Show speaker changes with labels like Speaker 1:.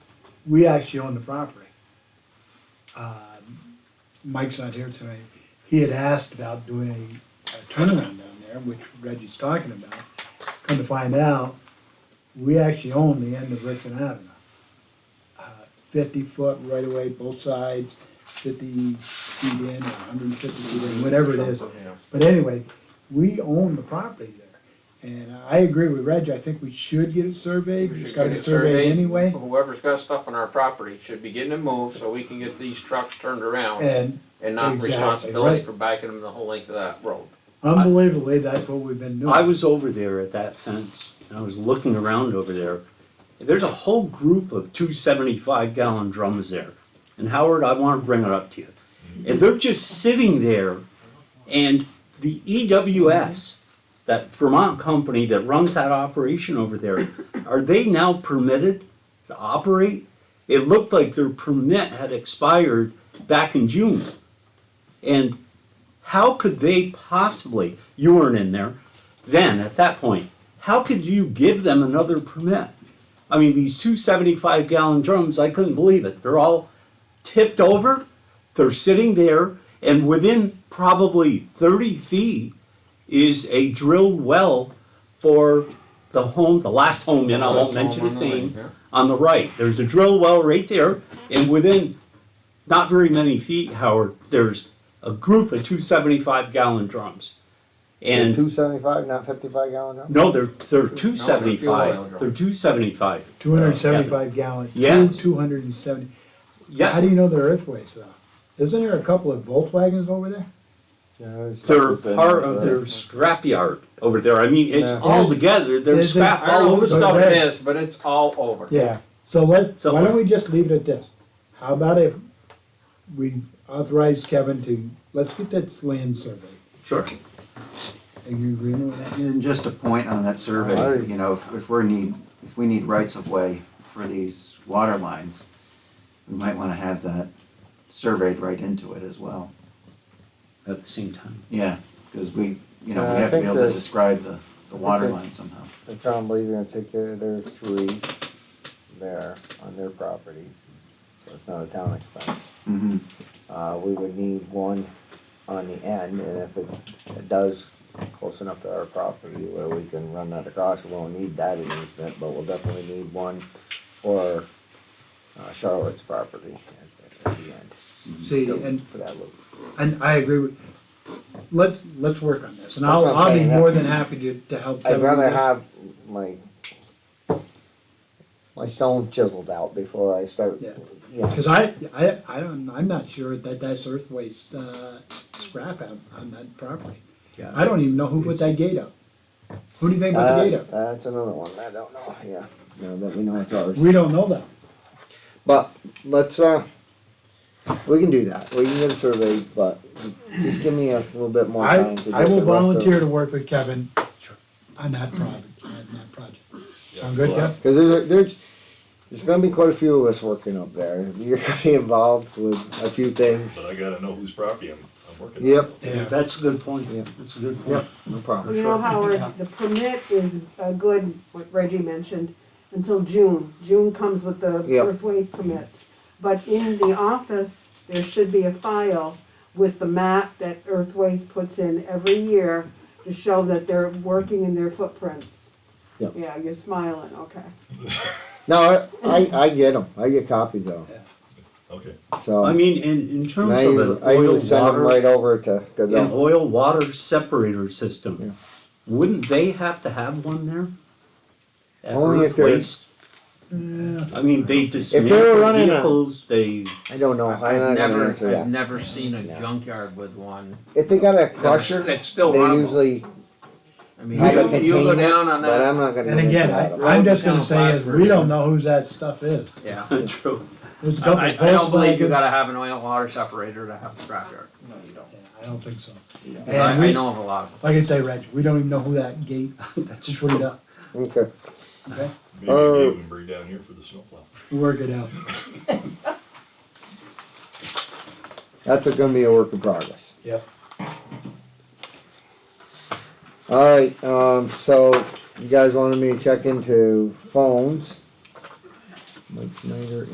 Speaker 1: we actually own the property. Um, Mike's not here tonight. He had asked about doing a a turnaround down there, which Reggie's talking about. Come to find out, we actually own the end of Richmond Avenue. Uh, Fifty foot right away, both sides, fifty feet in, or hundred and fifty feet in, whatever it is. But anyway, we own the property there. And I agree with Reggie, I think we should get it surveyed,
Speaker 2: We
Speaker 1: it's
Speaker 2: should
Speaker 1: got
Speaker 2: get
Speaker 1: it
Speaker 2: it
Speaker 1: surveyed
Speaker 2: surveyed.
Speaker 1: anyway.
Speaker 2: Whoever's got stuff on our property should be getting it moved so we can get these trucks turned around
Speaker 1: And
Speaker 2: and not
Speaker 1: Eh, exactly,
Speaker 2: responsibility
Speaker 1: right.
Speaker 2: for backing them the whole length of that road.
Speaker 1: unbelievably, that's what we've been doing.
Speaker 3: I was over there at that fence, and I was looking around over there. There's a whole group of two seventy-five gallon drums there. And Howard, I wanna bring it up to you. And they're just sitting there, and the EWS, that Vermont company that runs that operation over there, are they now permitted to operate? It looked like their permit had expired back in June. And how could they possibly, you weren't in there, then at that point, how could you give them another permit? I mean, these two 75 gallon drums, I couldn't believe it. They're all tipped over, they're sitting there, and within probably 30 feet is a drilled well for the home, the last home, and I won't
Speaker 2: Last home
Speaker 3: mention his
Speaker 2: on the right,
Speaker 3: name,
Speaker 2: yeah.
Speaker 3: on the right. There's a drill well right there, and within not very many feet, Howard, there's a group of two 75 gallon drums. And
Speaker 4: Two seventy-five, not fifty-five gallon drum?
Speaker 3: no, they're they're two
Speaker 2: they're
Speaker 3: seventy
Speaker 2: fuel oil
Speaker 3: five.
Speaker 2: drums.
Speaker 3: They're two seventy five.
Speaker 1: Two hundred and seventy-five gallon,
Speaker 3: Yeah.
Speaker 1: two hundred and seventy. How
Speaker 3: Yeah,
Speaker 1: do you know they're earthways though? Isn't there a couple of Volkswagens over there?
Speaker 4: Yeah, it's-
Speaker 3: they're part of their scrapyard over there. I mean, it's
Speaker 4: Yeah.
Speaker 3: all together. There's
Speaker 1: There's a-
Speaker 3: scrap
Speaker 2: I don't
Speaker 3: all
Speaker 2: know
Speaker 3: over.
Speaker 2: whose
Speaker 3: the-
Speaker 2: stuff it is, but it's all over.
Speaker 1: Yeah, so let's, why
Speaker 3: Somewhere.
Speaker 1: don't we just leave it at this? How about if we authorize Kevin to, let's get that land surveyed.
Speaker 3: Sure.
Speaker 1: Are you agreeing with that?
Speaker 5: And just a point on that survey, you know, if- if we're need, if we need rights of way for these water lines, we might wanna have that surveyed right into it as well.
Speaker 3: At the same time,
Speaker 5: Yeah, cause we, you know,
Speaker 4: Uh, I
Speaker 5: we have to be
Speaker 4: think
Speaker 5: able to
Speaker 4: the-
Speaker 5: describe the, the water
Speaker 4: the-
Speaker 5: line somehow.
Speaker 4: They're probably gonna take their, their three there on their properties, so it's not a town expense.
Speaker 5: Mm-hmm.
Speaker 4: Uh, we would need one on the end, and if it, it does close enough to our property where we can run that across, we won't need that easement, but we'll definitely need one for uh, Charlotte's property at, at the end.
Speaker 1: See,
Speaker 4: So,
Speaker 1: and-
Speaker 4: For that loop.
Speaker 1: And I agree with, let's, let's work on this, and I'll,
Speaker 4: That's what I'm
Speaker 1: I'll be
Speaker 4: saying, that-
Speaker 1: more than happy to, to help Kevin.
Speaker 4: I'd
Speaker 1: with
Speaker 4: rather
Speaker 1: this.
Speaker 4: have my, my stone chiseled out before I start,
Speaker 1: Yeah.
Speaker 4: yeah.
Speaker 1: Cause I, I, I don't, I'm not sure that that's earthways, uh, scrap out on that property.
Speaker 3: yeah.
Speaker 1: I don't even know who put that gate up. Who do you think put the gate
Speaker 4: Uh,
Speaker 1: up?
Speaker 4: That's another one, I don't know, yeah, now that we know it's ours.
Speaker 1: We don't know that.
Speaker 4: But let's uh, we can do that. We can get a survey, but just give me a little bit more
Speaker 1: I,
Speaker 4: time to.
Speaker 1: I will
Speaker 4: get the rest of-
Speaker 1: volunteer to work with Kevin on that project, on that project. Sound good, Kev?
Speaker 4: Cause there's, a- there's, there's gonna be quite a few of us working up there. You're gonna be involved with a few things.
Speaker 6: But I gotta know whose property I'm, I'm working on.
Speaker 4: Yep,
Speaker 1: Yeah.
Speaker 3: That's a good point.
Speaker 4: Yeah.
Speaker 3: That's a good
Speaker 4: yep,
Speaker 3: point.
Speaker 4: no problem.
Speaker 7: You know, Howard, the permit is uh, good, what Reggie mentioned, until June. June comes with the
Speaker 4: Yep.
Speaker 7: earthways permits. But in the office, there should be a file with the map that earthways puts in every year to show that they're working in their footprints.
Speaker 4: Yep.
Speaker 7: Yeah, you're smiling, okay.
Speaker 4: No, I, I, I get them. I get copies of them.
Speaker 6: Okay.
Speaker 4: So.
Speaker 3: I mean, in in
Speaker 4: and I
Speaker 3: terms
Speaker 4: usually,
Speaker 3: of an
Speaker 4: I
Speaker 3: oil
Speaker 4: usually send them right
Speaker 3: water,
Speaker 4: over to, to
Speaker 3: an
Speaker 4: them.
Speaker 3: oil water separator
Speaker 4: Yeah.
Speaker 3: system, wouldn't they have to have one there? At
Speaker 4: Only if
Speaker 3: Earth
Speaker 4: they're-
Speaker 3: Waste? I mean, they dismantle
Speaker 4: running a-
Speaker 3: vehicles. They
Speaker 4: I don't know. I'm
Speaker 2: I've
Speaker 4: not gonna
Speaker 2: never,
Speaker 4: answer
Speaker 2: I've
Speaker 4: that.
Speaker 2: never seen a junkyard with one.
Speaker 4: If they got a
Speaker 2: that was-
Speaker 4: crusher, they
Speaker 2: That's still runnable.
Speaker 4: usually
Speaker 2: I mean,
Speaker 4: have a
Speaker 2: you, you go
Speaker 4: container,
Speaker 2: down on
Speaker 4: but I'm
Speaker 2: that,
Speaker 4: not gonna.
Speaker 1: And
Speaker 4: get into
Speaker 1: again,
Speaker 4: that.
Speaker 1: I, I'm just gonna say is, we don't know whose that stuff is.
Speaker 2: yeah.
Speaker 3: true.
Speaker 1: It's a couple
Speaker 2: I, I don't believe you
Speaker 1: Volkswagens.
Speaker 2: gotta have an oil water separator to have a scrapyard.
Speaker 1: No, you don't. I don't think so.
Speaker 2: I,
Speaker 1: And
Speaker 2: I
Speaker 1: we,
Speaker 2: know of a lot of them.
Speaker 1: like I say, Reg, we don't even know who that gate
Speaker 3: That's
Speaker 1: is
Speaker 3: true.
Speaker 1: put up,
Speaker 4: Okay.
Speaker 1: okay?
Speaker 6: Maybe Dave and Bree down here for the snowplow.
Speaker 1: We'll Work it out.
Speaker 4: That's gonna be a work in progress.
Speaker 1: Yep.
Speaker 4: Alright, um, so you guys wanted me to check into phones. Mike Snyder